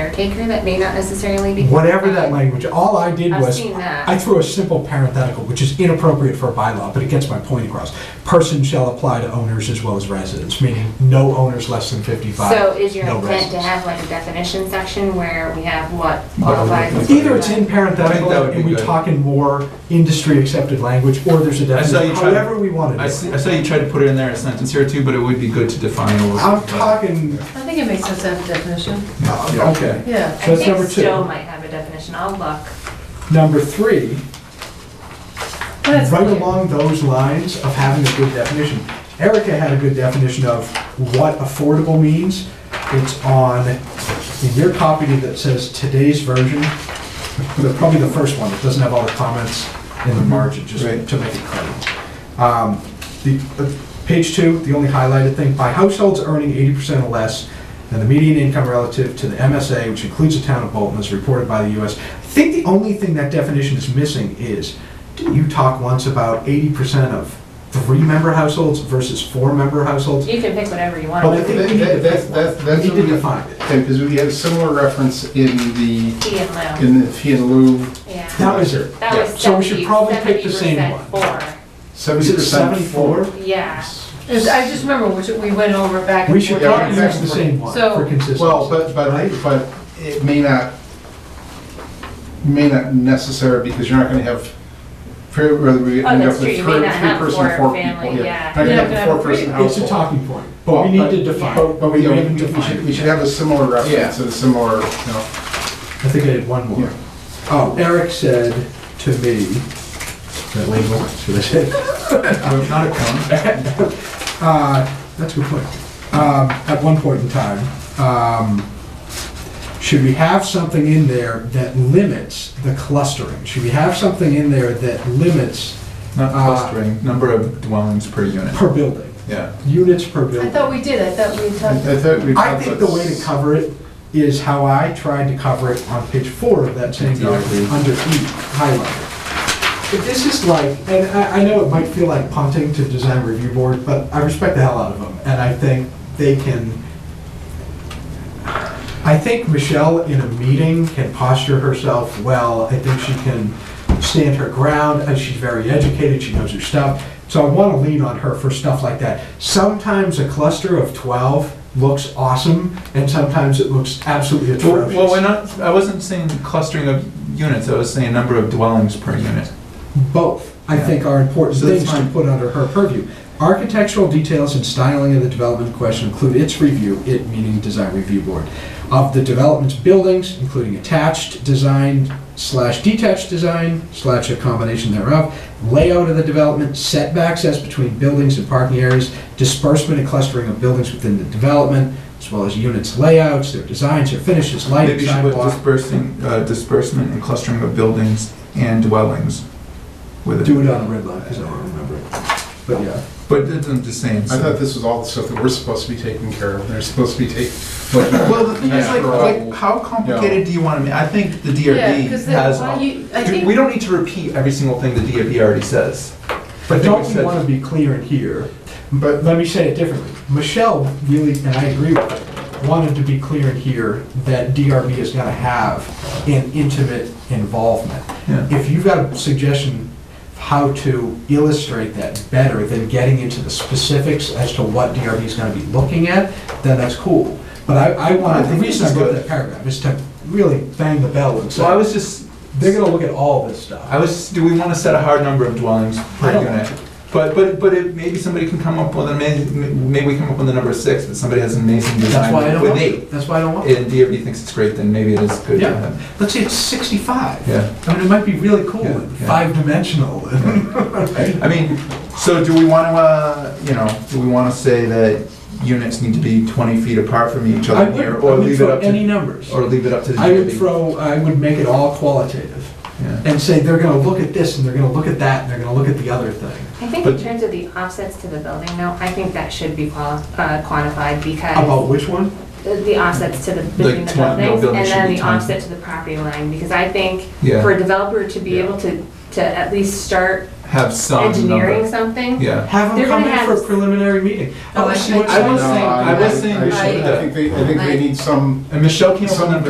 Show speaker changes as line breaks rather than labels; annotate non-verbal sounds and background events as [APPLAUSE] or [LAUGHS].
caretaker that may not necessarily be.
Whatever that
qualified.
language, all I did
I've
was,
seen that.
I threw a simple parenthetical, which is inappropriate for a bylaw, but it gets my point across. Person shall apply to owners as well as residents, meaning no owners less than 55.
So is your
no
intent to
residents.
have like a definition section where we have what
Well,
qualifies?
we-
as
Either it's in
qualified?
parenthetical
I think that would be
and we
good.
talk in more industry-accepted language, or there's a
I saw you
definition,
try-
however we want
I
to do
see,
it.
I saw you tried to put it in there in a sentence here too, but it would be good to define a little.
I'm talking,
I think it makes sense to have a definition,
uh, okay.
yeah.
So
I
that's number
think
two.
Stowe might have a definition, I'll look.
Number three,
That's
right
clear.
along those lines of having a good definition. Erica had a good definition of what affordable means. It's on, in your copy that says today's version, the- probably the first one, it doesn't have all the comments in the margin, just
Right.
to make it clear. Um, The, uh, page two, the only highlighted thing, by households earning eighty percent or less, and the median income relative to the MSA, which includes the town of Bolton, as reported by the US. I think the only thing that definition is missing is, didn't you talk once about eighty percent of three-member households versus four-member households?
You can pick whatever you
But I
want.
think
That-
we need to
that- that's-
pick
that's-
one.
that's
We
what
need
we-
to define it.
Okay, because we had a similar reference in the,
Fee and loan,
in the fee and lieu,
yeah.
That was it.
That was
So we should
seventy,
probably pick
seventy
the same
percent
one.
for,
Is
seventy
it
percent
seventy-four?
for.
yeah.
It's- I just remember, which we went over back
We
and
should
forth.
Yeah,
probably use
exactly.
the same one
So-
for consistency.
Well, but, but, but it may not, may not necessary, because you're not gonna have, for- whether we
Oh,
end
that's
up
true.
with
You
three,
may not have
person,
four
four
family,
people,
yeah.
yeah. Not gonna
You're not
have
gonna
a
have
four-person
three.
It's a
household.
talking point, but we need to define.
But, but we,
We
we
haven't
we
defined
should,
it
we should have a similar
Yeah.
reference, and a similar, you know,
I think I did one more.
Yeah.
Oh, Eric said to me, that label, should I
[LAUGHS]
say?
Not a cone.
Uh, That's a good point. Um, At one point in time, um, should we have something in there that limits the clustering? Should we have something in there that limits
Not
Uh,
clustering, number of dwellings per unit.
per building,
Yeah.
units per
I
building?
thought we did, I thought we
I
talked,
I thought we.
I think the way to cover it is how I tried to cover it on page four of that same document, under E, highlighted. But This is like, and I, I know it might feel like punting to design review board, but I respect the hell out of them, and I think they can, I think Michelle in a meeting can posture herself well, I think she can stand her ground, and she's very educated, she knows her stuff, so I wanna lean on her for stuff like that. Sometimes a cluster of twelve looks awesome, and sometimes it looks absolutely
Well, well, we're
atrocious.
not, I wasn't saying clustering of units, I was saying number of dwellings per unit.
Both, I think, are important
So that's
things to
fine.
put under her purview. Architectural details and styling of the development in question include its review, it meaning design review board, of the development's buildings, including attached design slash detached design slash a combination thereof, layout of the development, setbacks as between buildings and parking areas, disbursement and clustering of buildings within the development, as well as units layouts, their designs, their finishes, lighting,
Maybe you should put
sidewalk.
dispersing, uh, disbursement and clustering of buildings and dwellings with
Do
it.
it on a red line, because I don't remember it. But yeah.
But it's the same.
I
so-
thought this was all the stuff that we're supposed to be taking care of, they're supposed to be taking. Well,
Well, the thing is, like, like, how complicated do you want to make? I think the
yeah,
DRB
because
has.
then,
all-
you, I
Dude, We
think,
don't need to repeat every single thing the DRB already says. I
But
think
don't
we
you
said-
want to be clear in here?
But,
Let me say it differently. Michelle really, and I agree with her, wanted to be clear in here that DRB is going to have an intimate involvement.
Yeah.
If you've got a suggestion of how to illustrate that better than getting into the specifics as to what DRB is going to be looking at, then that's cool. But I, I
I
wanted, the
think
reason
this
I
is
wrote
good.
that paragraph is to really bang the bell and say,
So I was just,
they're going to look at all this stuff.
I was, do we want to set a hard number of dwellings
I
per
don't
unit? But, but, but it, maybe somebody can come up with, a ma- maybe we come up with a number of six, but somebody has an amazing
That's why I
design
don't
with
want to.
eight.
That's why I don't want to.
And DRB thinks it's great, then maybe it is good to
Yeah.
have.
Let's say it's 65.
Yeah.
I mean, it might be really cool,
Yeah,
and
yeah.
five-dimensional. and-
I mean, so do we want to, uh, you know, do we want to say that units need to be 20 feet apart from
[LAUGHS]
each
I
other
would,
here?
I
Or
would
leave it
throw
up
any
to,
numbers.
or leave it up to the DRB?
I would throw, I would make it all qualitative,
Yeah.
and say, they're gonna look at this, and they're gonna look at that, and they're gonna look at the other thing.
I think in
But-
terms of the offsets to the building, no, I think that should be qual- uh, quantified
About
because
which one?
the- the offsets to the, between the
twen- no
buildings
building
and
should
then
be
the
20.
offset to the property line, because I think
Yeah.
for a developer to be
Yeah.
able to, to at least start
Have some
engineering
number.
something.
Yeah.
Have them
They're
come
gonna
in
have-
for a preliminary meeting.
No,
Oh,
I-
see
I-
what's
I
going
was
no,
on.
saying- I was saying we
I
should-
I think they, I think
I-
they need some,
And Michelle came up with a
some